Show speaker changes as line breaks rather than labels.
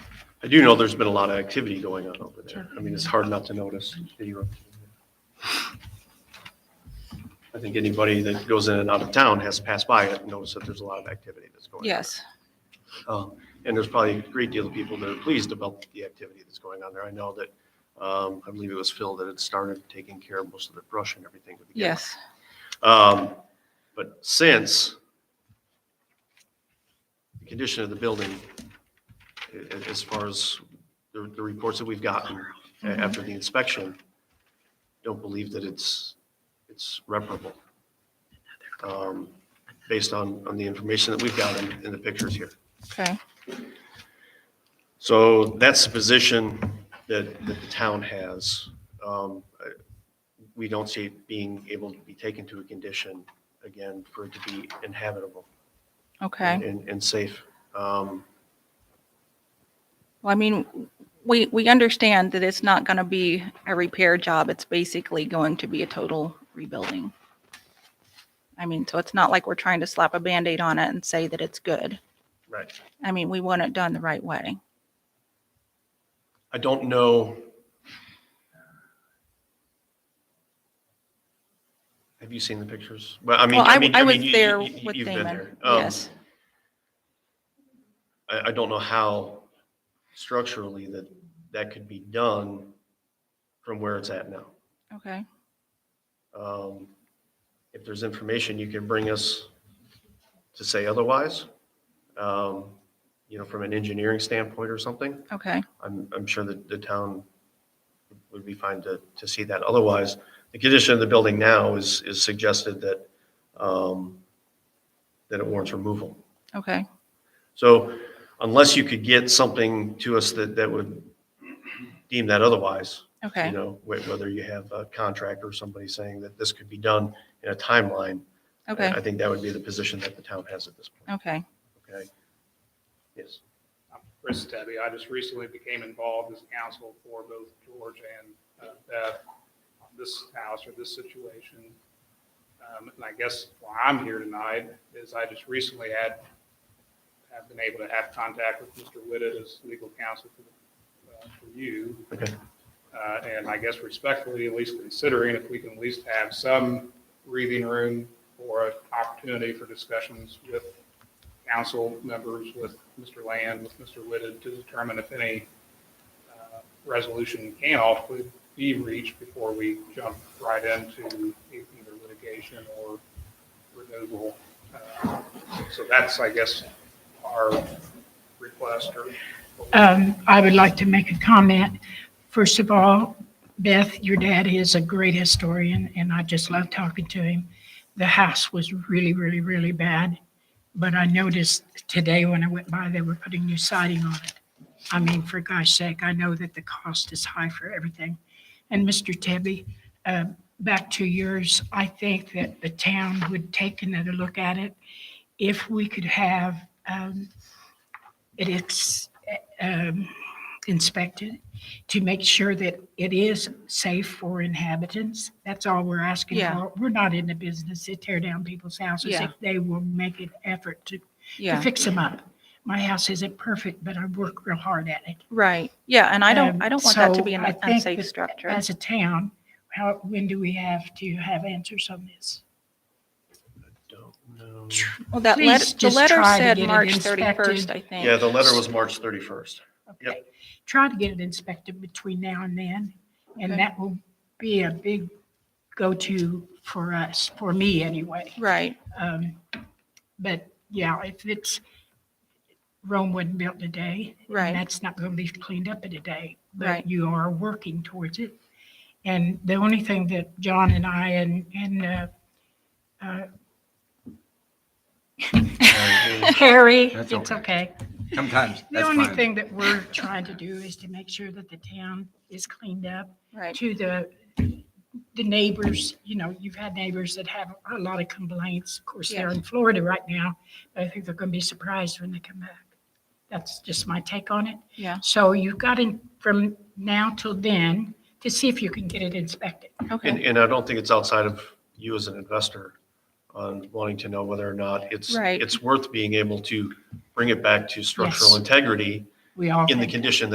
I do know there's been a lot of activity going on over there. I mean, it's hard not to notice. video. I think anybody that goes in and out of town has to pass by it and notice that there's a lot of activity that's going on.
Yes,
Um, And there's probably a great deal of people that are pleased about the activity that's going on there. I know that, um, I believe it was Phil that had started taking care of most of the brush and everything with the gas.
yes.
Um, But since the condition of the building, a- a- as far as the the reports that we've gotten a- after the inspection, don't believe that it's, it's reparable. um, Based on, on the information that we've got in, in the pictures here.
Okay,
So that's the position that, that the town has. Um, I- We don't see it being able to be taken to a condition, again, for it to be inhabitable
okay.
and, and safe. Um,
Well, I mean, we, we understand that it's not going to be a repair job. It's basically going to be a total rebuilding. I mean, so it's not like we're trying to slap a Band-Aid on it and say that it's good.
Right.
I mean, we want it done the right way.
I don't know. Have you seen the pictures? Well, I mean,
Well,
I
I,
mean,
I
I
was
mean, you-
there
you- you-
with
you've been
Damon.
there. Um,
Yes,
I, I don't know how structurally that, that could be done from where it's at now.
okay,
Um, If there's information you can bring us to say otherwise, um, you know, from an engineering standpoint or something,
okay,
I'm, I'm sure that the town would be fine to, to see that. Otherwise, the condition of the building now is, is suggested that, um, that it warrants removal.
okay.
So unless you could get something to us that, that would deem that otherwise, you
Okay,
know, wh- whether you have a contract or somebody saying that this could be done in a timeline. I-
okay,
I think that would be the position that the town has at this point,
okay,
okay? Yes,
I'm Chris Stebby. I just recently became involved as counsel for both George and uh, Beth on this house or this situation. Um, And I guess why I'm here tonight is I just recently had, have been able to have contact with Mr. Whitted as legal counsel for, uh, for you.
okay,
Uh, And I guess respectfully, at least considering if we can at least have some breathing room or an opportunity for discussions with council members, with Mr. Land, with Mr. Whitted, to determine if any uh, resolution can ultimately be reached before we jump right into either litigation or removal. Uh, So that's, I guess, our request or
Um, I would like to make a comment. First of all, Beth, your dad is a great historian, and I just love talking to him. The house was really, really, really bad, but I noticed today when I went by, they were putting new siding on it. I mean, for gosh sake, I know that the cost is high for everything. And Mr. Tebby, uh, back to yours, I think that the town would take another look at it. If we could have, um, it is um, inspected to make sure that it is safe for inhabitants. That's all we're asking
Yeah.
for. We're not in the business to tear down people's houses
Yeah.
if they will make an effort to to
yeah,
fix them up. My house isn't perfect, but I work real hard at it.
right, yeah, and I don't,
Um,
I don't want that to
so
be an
I think
unsafe
that
structure.
As a town, how, when do we have to have answers on this?
don't know.
Well, that
Please
letter, the
just
letter
try to
said
get it
March 31st,
inspected.
I think.
Yeah, the letter was March 31st. Yep.
Okay, Try to get it inspected between now and then, and
Okay.
that will be a big go-to for us, for me anyway.
Right,
Um, But yeah, if it's, Rome wasn't built in a day. and
Right.
That's not going to be cleaned up in a day.
Right.
But you are working towards it. And the only thing that John and I and, and uh, uh, Harry,
That's
it's okay.
Sometimes,
The
that's
only
fine.
thing that we're trying to do is to make sure that the town is cleaned up
right,
to the, the neighbors, you know, you've had neighbors that have a lot of complaints. Of course, they're in Florida right now, but I think they're gonna be surprised when they come back. That's just my take on it.
yeah,
So you've got in from now till then to see if you can get it inspected.
And,
okay,
and I don't think it's outside of you as an investor on wanting to know whether or not it's,
Right.
it's worth being able to bring it back to structural
Yes.
integrity
We all
in the
think-
condition